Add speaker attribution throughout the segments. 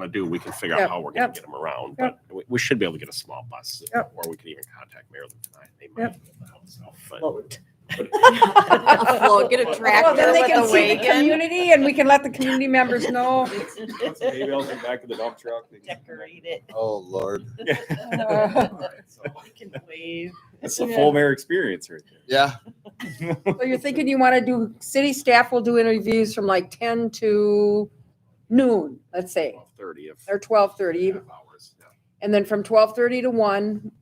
Speaker 1: want to do, we can figure out
Speaker 2: Yep,
Speaker 1: how we're going
Speaker 2: yep.
Speaker 1: to get them around. But we, we should be able to get a small bus,
Speaker 2: Yep.
Speaker 1: or we could even contact Maryland tonight. They might be able to help us out. But
Speaker 3: float.
Speaker 4: A float, get a
Speaker 2: Well,
Speaker 4: tractor
Speaker 2: then they
Speaker 4: with
Speaker 2: can
Speaker 4: a
Speaker 2: see the
Speaker 4: wagon.
Speaker 2: community and we can let the community members know.
Speaker 5: Once the hay bales are back in the dump truck. they can-
Speaker 3: Decorate it.
Speaker 6: Oh, Lord.
Speaker 2: Uh,
Speaker 5: So,
Speaker 3: You can wave.
Speaker 5: That's the full mayor experience right there.
Speaker 6: Yeah.
Speaker 2: So you're thinking you want to do, city staff will do interviews from like ten to noon, let's say,
Speaker 1: 12:30 if-
Speaker 2: or twelve thirty.
Speaker 1: half hours, yeah.
Speaker 2: And then from twelve thirty to one,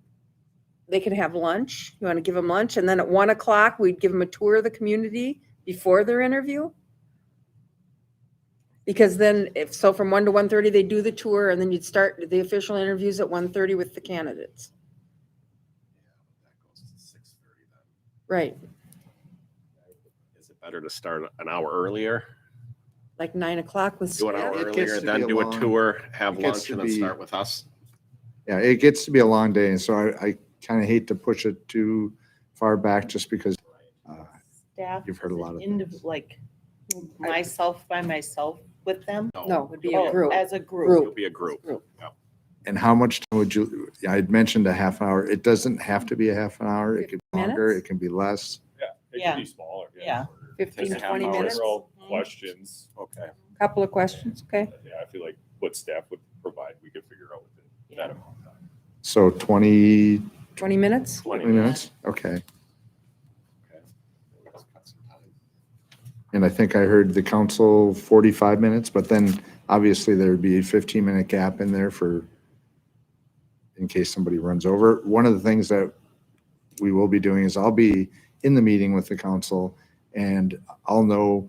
Speaker 2: they can have lunch. You want to give them lunch? And then at one o'clock, we'd give them a tour of the community before their interview? Because then if, so from one to one thirty, they do the tour and then you'd start the official interviews at one thirty with the candidates.
Speaker 1: That goes to 6:30 then.
Speaker 2: Right,
Speaker 1: Is it better to start an hour earlier?
Speaker 2: like nine o'clock with
Speaker 1: Do an hour
Speaker 2: staff.
Speaker 6: It gets
Speaker 1: earlier,
Speaker 6: to
Speaker 1: then
Speaker 6: be a
Speaker 1: do a
Speaker 6: long-
Speaker 1: tour, have
Speaker 6: it gets
Speaker 1: lunch,
Speaker 6: to
Speaker 1: and then
Speaker 6: be-
Speaker 1: start with us?
Speaker 6: Yeah, it gets to be a long day, and so I, I kind of hate to push it too far back just because, uh,
Speaker 3: Staff.
Speaker 6: You've heard a
Speaker 3: as
Speaker 6: lot
Speaker 3: an
Speaker 6: of
Speaker 3: indiv- Like myself by myself with them.
Speaker 2: No, it'd be
Speaker 3: Oh,
Speaker 2: a group.
Speaker 3: As a
Speaker 2: Group.
Speaker 3: group.
Speaker 1: It'll be a group.
Speaker 2: Group.
Speaker 6: and how much time would you, I'd mentioned a half hour. It doesn't have to be a half an hour. It could be longer, it
Speaker 2: Minutes?
Speaker 6: can be less.
Speaker 5: It
Speaker 3: Yeah.
Speaker 5: could be smaller.
Speaker 3: Yeah.
Speaker 5: Take a
Speaker 2: Fifteen,
Speaker 5: half
Speaker 2: twenty
Speaker 5: hour,
Speaker 2: minutes,
Speaker 5: throw
Speaker 7: Mm-hmm.
Speaker 5: Questions.
Speaker 1: Okay.
Speaker 2: couple of questions, okay?
Speaker 5: Yeah, I feel like what staff would provide, we could figure out within that amount of time.
Speaker 6: So 20,
Speaker 2: Twenty minutes?
Speaker 6: 20 minutes? Okay. And I think I heard the council 45 minutes, but then obviously there'd be a 15-minute gap in there for, in case somebody runs over. One of the things that we will be doing is I'll be in the meeting with the council and I'll know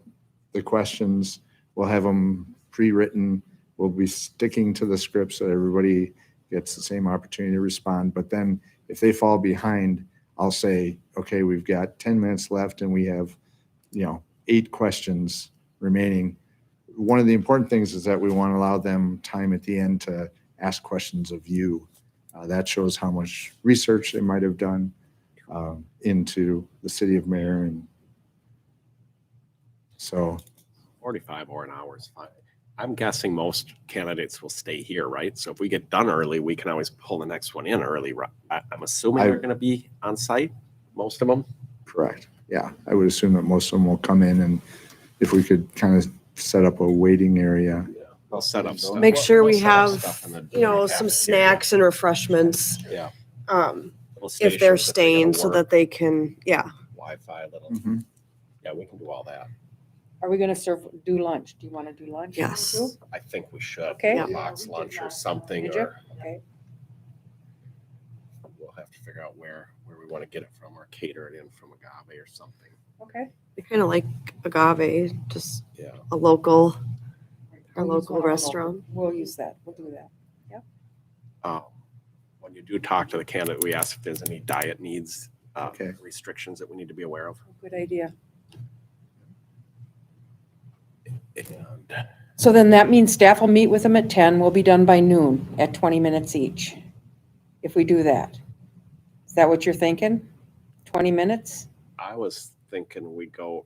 Speaker 6: the questions. We'll have them pre-written. We'll be sticking to the script so everybody gets the same opportunity to respond. But then if they fall behind, I'll say, okay, we've got 10 minutes left and we have, you know, eight questions remaining. One of the important things is that we want to allow them time at the end to ask questions of you. Uh, that shows how much research they might have done um, into the city of Mayor and so,
Speaker 1: 45 or an hour is fine. I'm guessing most candidates will stay here, right? So if we get done early, we can always pull the next one in early. ri- I- I'm assuming
Speaker 6: I-
Speaker 1: they're going to be on site, most of them.
Speaker 6: correct. Yeah, I would assume that most of them will come in and if we could kind of set up a waiting area.
Speaker 1: We'll set up stuff.
Speaker 7: Make sure
Speaker 1: We'll
Speaker 7: we
Speaker 1: set up
Speaker 7: have,
Speaker 1: stuff in the
Speaker 7: you know,
Speaker 1: cafeteria.
Speaker 7: some snacks and refreshments.
Speaker 1: Yeah.
Speaker 7: Um,
Speaker 1: Little
Speaker 7: if
Speaker 1: stations
Speaker 7: they're
Speaker 1: gonna
Speaker 7: staying so
Speaker 1: work,
Speaker 7: that they can, yeah.
Speaker 1: Wi-Fi, little,
Speaker 6: Mhm.
Speaker 1: yeah, we can do all that.
Speaker 2: Are we gonna serve, do lunch? Do you want to do lunch? in the
Speaker 7: Yes.
Speaker 2: group?
Speaker 1: I think we should.
Speaker 2: Okay. Yeah.
Speaker 1: Box lunch or something,
Speaker 2: Did you?
Speaker 1: or
Speaker 2: Okay.
Speaker 1: we'll have to figure out where, where we want to get it from or cater it in from Agave or something.
Speaker 2: Okay.
Speaker 7: I kind of like agave, just
Speaker 1: Yeah.
Speaker 7: a local, our
Speaker 2: We'll use
Speaker 7: local
Speaker 2: one of the
Speaker 7: restaurant.
Speaker 2: We'll use that. We'll do that.
Speaker 1: Uh, When you do talk to the candidate, we ask if there's any diet needs, uh,
Speaker 6: Okay.
Speaker 1: restrictions that we need to be aware of.
Speaker 2: Oh, Good idea.
Speaker 1: And
Speaker 2: So then that means staff will meet with them at ten. We'll be done by noon at twenty minutes each. If we do that. Is that what you're thinking? Twenty minutes?
Speaker 1: I was thinking we go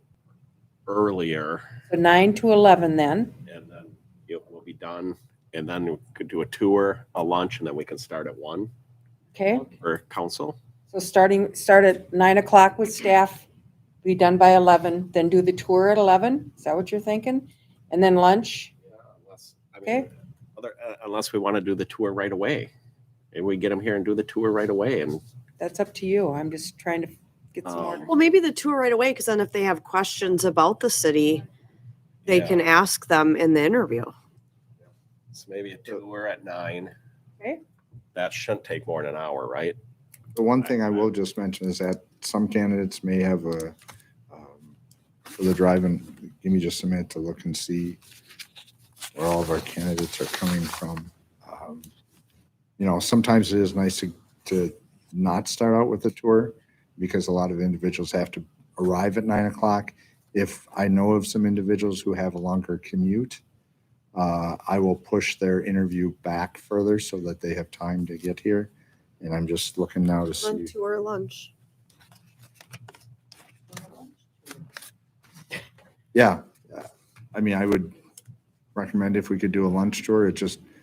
Speaker 1: earlier
Speaker 2: So nine to eleven then.
Speaker 1: and then it will be done. And then we could do a tour, a lunch, and then we can start at one
Speaker 2: Okay.
Speaker 1: for council.
Speaker 2: So starting, start at nine o'clock with staff, be done by eleven, then do the tour at eleven? Is that what you're thinking? And then lunch?
Speaker 1: Unless, I
Speaker 2: mean, Okay.
Speaker 1: Other, uh, unless we want to do the tour right away. And we get them here and do the tour right away and
Speaker 2: That's up to you. I'm just trying to get some order.
Speaker 7: Well, maybe the tour right away, because then if they have questions about the city, they
Speaker 1: Yeah.
Speaker 7: can ask them in the interview.
Speaker 1: so maybe a tour at nine.
Speaker 2: Okay.
Speaker 1: That shouldn't take more than an hour, right?
Speaker 6: The one thing I will just mention is that some candidates may have a, um, for the drive-in, give me just a minute to look and see where all of our candidates are coming from. Um, You know, sometimes it is nice to, to not start out with a tour because a lot of individuals have to arrive at nine o'clock. If I know of some individuals who have a longer commute, uh, I will push their interview back further so that they have time to get here. And I'm just looking now to see.
Speaker 7: Run tour lunch.
Speaker 6: Yeah, I mean, I would recommend if we could do a lunch tour, it just